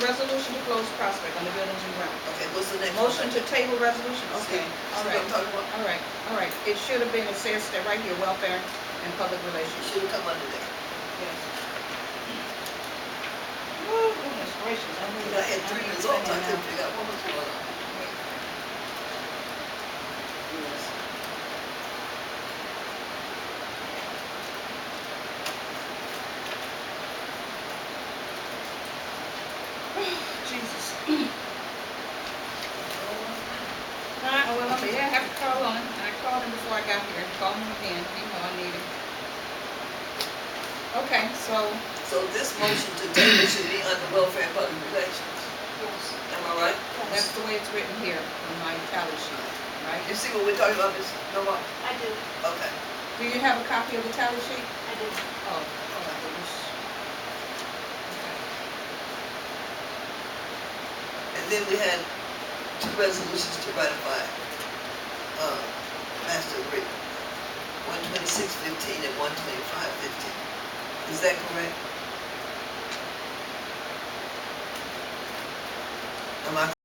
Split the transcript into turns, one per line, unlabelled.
next one.
Motion to table resolution, okay,
See,
all
see what I'm
right,
talking about?
all right, all right. It should have been, it says that right here, welfare and public
It
relations.
should come under there.
Yes. Woo, goodness gracious, I knew
Because I
that.
had three
knew
results, I
that
couldn't
now.
figure out what was going on. Yes.
Jesus. Alright, well, I mean, I have to call on, and I called him before I got here, called him again, you know I need him. Okay, so,
So this motion to table should be under welfare and public relations. Am I right?
that's the way it's written here on my tally sheet, right?
You see what we're talking about, Ms. Norma?
I do,
Okay.
Do you have a copy of the tally sheet?
I do.
Oh, oh my goodness. Okay.
And then we had two resolutions to ratify, uh, master agreement. One twenty-six fifteen and one twenty-five fifteen. Is that correct? Am I